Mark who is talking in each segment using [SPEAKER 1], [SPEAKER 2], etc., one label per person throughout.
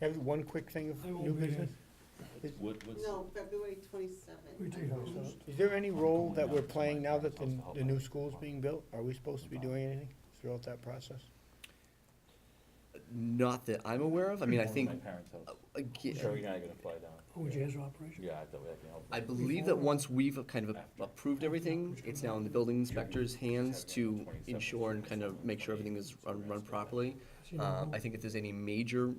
[SPEAKER 1] Have one quick thing of
[SPEAKER 2] I won't
[SPEAKER 1] new
[SPEAKER 2] be here.
[SPEAKER 1] business?
[SPEAKER 3] What, what's?
[SPEAKER 4] No, February
[SPEAKER 2] We
[SPEAKER 4] twenty-seventh.
[SPEAKER 2] take those out.
[SPEAKER 1] Is there any role that we're playing now that the, the new school's being built? Are we supposed to be doing anything throughout that process?
[SPEAKER 5] Not that I'm aware of. I mean, I think,
[SPEAKER 3] My parents' house.
[SPEAKER 5] aga-
[SPEAKER 3] Sure, you're not gonna fly down.
[SPEAKER 2] OJ's operation.
[SPEAKER 3] Yeah, I thought we can help.
[SPEAKER 5] I believe that once we've uh, kind of approved everything, it's now in the building inspector's hands to ensure and kind of make sure everything is run, run properly. Um, I think if there's any major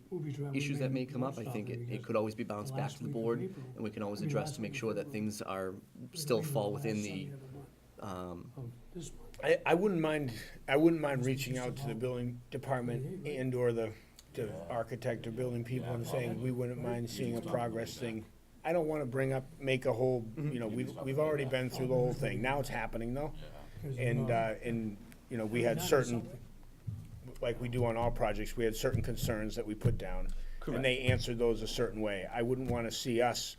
[SPEAKER 5] issues that may come up, I think it, it could always be bounced back to the board, and we can always address to make sure that things are, still fall within the, um,
[SPEAKER 1] I, I wouldn't mind, I wouldn't mind reaching out to the building department and or the, the architect or building people and saying, we wouldn't mind seeing a progress thing. I don't wanna bring up, make a whole,
[SPEAKER 2] Mm-hmm.
[SPEAKER 1] you know, we've, we've already been through the whole thing. Now it's happening though. And, uh, and, you know, we had certain, like we do on all projects, we had certain concerns that we put down. And they answered those a certain way. I wouldn't wanna see us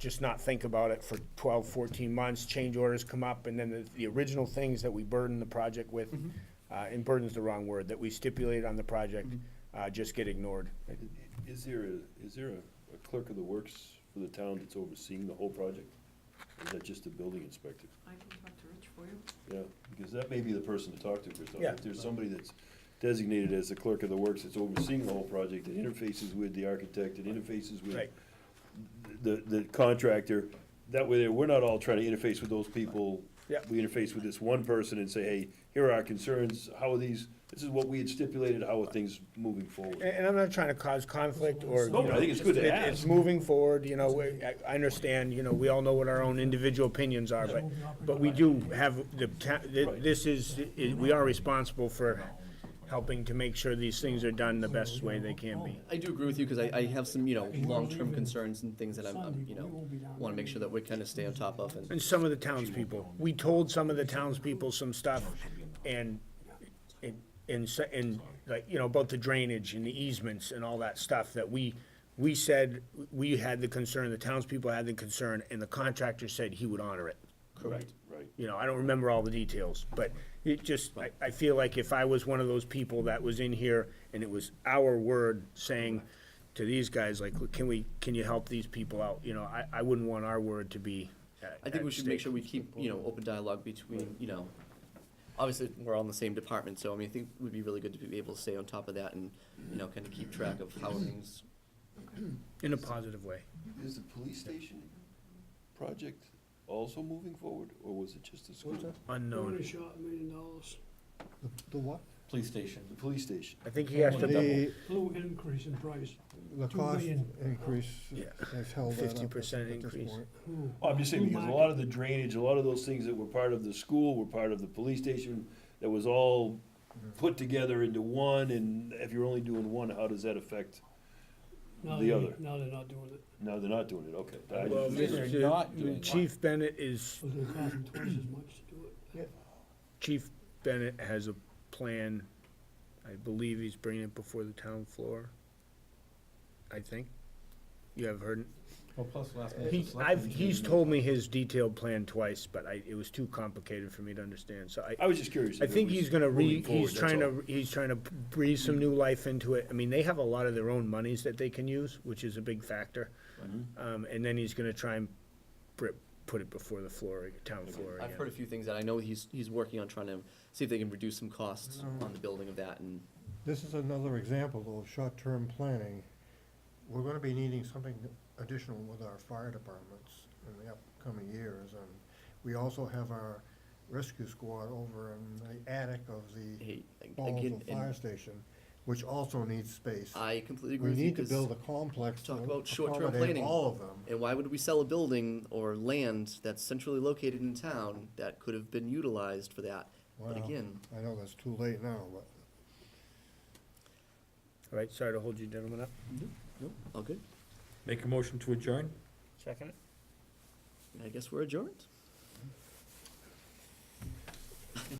[SPEAKER 1] just not think about it for 12, 14 months, change orders come up, and then the, the original things that we burden the project with, uh, and burden's the wrong word, that we stipulate on the project, uh, just get ignored.
[SPEAKER 6] Is there a, is there a- a clerk of the works for the town that's overseeing the whole project? Or is that just the building inspector?
[SPEAKER 7] I can talk to Rich for you.
[SPEAKER 6] Yeah, because that may be the person to talk to for something.
[SPEAKER 1] Yeah.
[SPEAKER 6] If there's somebody that's designated as the clerk of the works that's overseeing the whole project, that interfaces with the architect, that interfaces with
[SPEAKER 1] Right.
[SPEAKER 6] the, the contractor, that way there, we're not all trying to interface with those people.
[SPEAKER 1] Yeah.
[SPEAKER 6] We interface with this one person and say, hey, here are our concerns, how are these, this is what we had stipulated, how are things moving forward?
[SPEAKER 1] And, and I'm not trying to cause conflict or, you
[SPEAKER 6] No, but
[SPEAKER 1] know,
[SPEAKER 6] I think it's good to
[SPEAKER 1] it-
[SPEAKER 6] ask.
[SPEAKER 1] It's moving forward, you know, we- I, I understand, you know, we all know what our own individual opinions are, but, but we do have the, ta- th- this is, i- we are responsible for helping to make sure these things are done the best way they can be.
[SPEAKER 5] I do agree with you, because I, I have some, you know, long-term concerns and things that I'm, I'm, you know, wanna make sure that we kind of stay on top of, and
[SPEAKER 1] And some of the townspeople, we told some of the townspeople some stuff and, and, and, se- and, like, you know, about the drainage and the easements and all that stuff that we, we said, we had the concern, the townspeople had the concern, and the contractor said he would honor it.
[SPEAKER 5] correct.
[SPEAKER 6] Right.
[SPEAKER 1] You know, I don't remember all the details, but it just, I, I feel like if I was one of those people that was in here and it was our word saying to these guys, like, can we, can you help these people out? You know, I, I wouldn't want our word to be at-
[SPEAKER 5] I think we
[SPEAKER 1] at
[SPEAKER 5] should make
[SPEAKER 1] stake.
[SPEAKER 5] sure we keep, you know, open dialogue between, you know, obviously, we're all in the same department, so I mean, I think it would be really good to be able to stay on top of that and, you know, kind of keep track of how things.
[SPEAKER 1] In a positive way.
[SPEAKER 6] Is the police station project also moving forward, or was it just the school?
[SPEAKER 2] What's that?
[SPEAKER 1] Unknown.
[SPEAKER 2] shot a million dollars.
[SPEAKER 8] The what?
[SPEAKER 3] Police station.
[SPEAKER 6] The police station.
[SPEAKER 1] I think he has to double.
[SPEAKER 8] The,
[SPEAKER 2] Little increase in price.
[SPEAKER 8] the
[SPEAKER 2] Two
[SPEAKER 8] cost
[SPEAKER 2] million.
[SPEAKER 8] increase
[SPEAKER 1] Yeah.
[SPEAKER 8] has held that up.
[SPEAKER 1] 50%
[SPEAKER 8] at this
[SPEAKER 1] increase.
[SPEAKER 8] point.
[SPEAKER 2] Ooh.
[SPEAKER 6] I'm just
[SPEAKER 1] Oh
[SPEAKER 6] saying,
[SPEAKER 2] Blue
[SPEAKER 6] because a
[SPEAKER 2] market.
[SPEAKER 6] lot of the drainage, a lot of those things that were part of the school were part of the police station, that was all
[SPEAKER 3] Mm-hmm.
[SPEAKER 6] put together into one, and if you're only doing one, how does that affect?
[SPEAKER 2] Now
[SPEAKER 6] The
[SPEAKER 2] they-
[SPEAKER 6] other.
[SPEAKER 2] Now they're not doing it,
[SPEAKER 6] No, they're not doing it, okay. I-
[SPEAKER 1] Well,
[SPEAKER 3] They're
[SPEAKER 1] Mr.
[SPEAKER 3] not doing
[SPEAKER 1] Chief Bennett is,
[SPEAKER 2] it's gonna cost them twice as much to do it.
[SPEAKER 1] Chief Bennett has a plan. I believe he's bringing it before the town floor. I think. You have heard,
[SPEAKER 3] Well, plus last
[SPEAKER 1] he, I've, he's told me his detailed plan twice, but I, it was too complicated for me to understand, so I,
[SPEAKER 6] I was just curious. if
[SPEAKER 1] I
[SPEAKER 6] it
[SPEAKER 1] think
[SPEAKER 6] was
[SPEAKER 1] he's gonna re,
[SPEAKER 6] moving forward,
[SPEAKER 1] he's
[SPEAKER 6] that's
[SPEAKER 1] trying
[SPEAKER 6] all.
[SPEAKER 1] to, he's trying to breathe some new life into it. I mean, they have a lot of their own monies that they can use, which is a big factor.
[SPEAKER 3] Mm-hmm.
[SPEAKER 1] Um, and then he's gonna try and pr- put it before the floor, town floor
[SPEAKER 5] I've heard a
[SPEAKER 1] again.
[SPEAKER 5] few things that I know he's, he's working on trying to see if they can reduce some costs
[SPEAKER 8] Mm.
[SPEAKER 5] on the building of that and.
[SPEAKER 8] This is another example though, of short-term planning. We're gonna be needing something additional with our fire departments in the upcoming years, and we also have our rescue squad over in the attic of the
[SPEAKER 5] Hey, ag- again,
[SPEAKER 8] Baldwin
[SPEAKER 5] and
[SPEAKER 8] Fire Station, which also needs space.
[SPEAKER 5] I completely agree
[SPEAKER 8] We
[SPEAKER 5] with you.
[SPEAKER 8] need to
[SPEAKER 5] 'cause-
[SPEAKER 8] build a complex to
[SPEAKER 5] Talk about short-term
[SPEAKER 8] accommodate
[SPEAKER 5] planning.
[SPEAKER 8] all of them.
[SPEAKER 5] And why would we sell a building or land that's centrally located in town that could have been utilized for that? But
[SPEAKER 8] Well,
[SPEAKER 5] again,
[SPEAKER 8] I know that's too late now, but
[SPEAKER 1] All right, sorry to hold you gentlemen up.
[SPEAKER 5] no, all good.
[SPEAKER 3] Make a motion to adjourn?
[SPEAKER 1] Second?
[SPEAKER 5] I guess we're adjourned.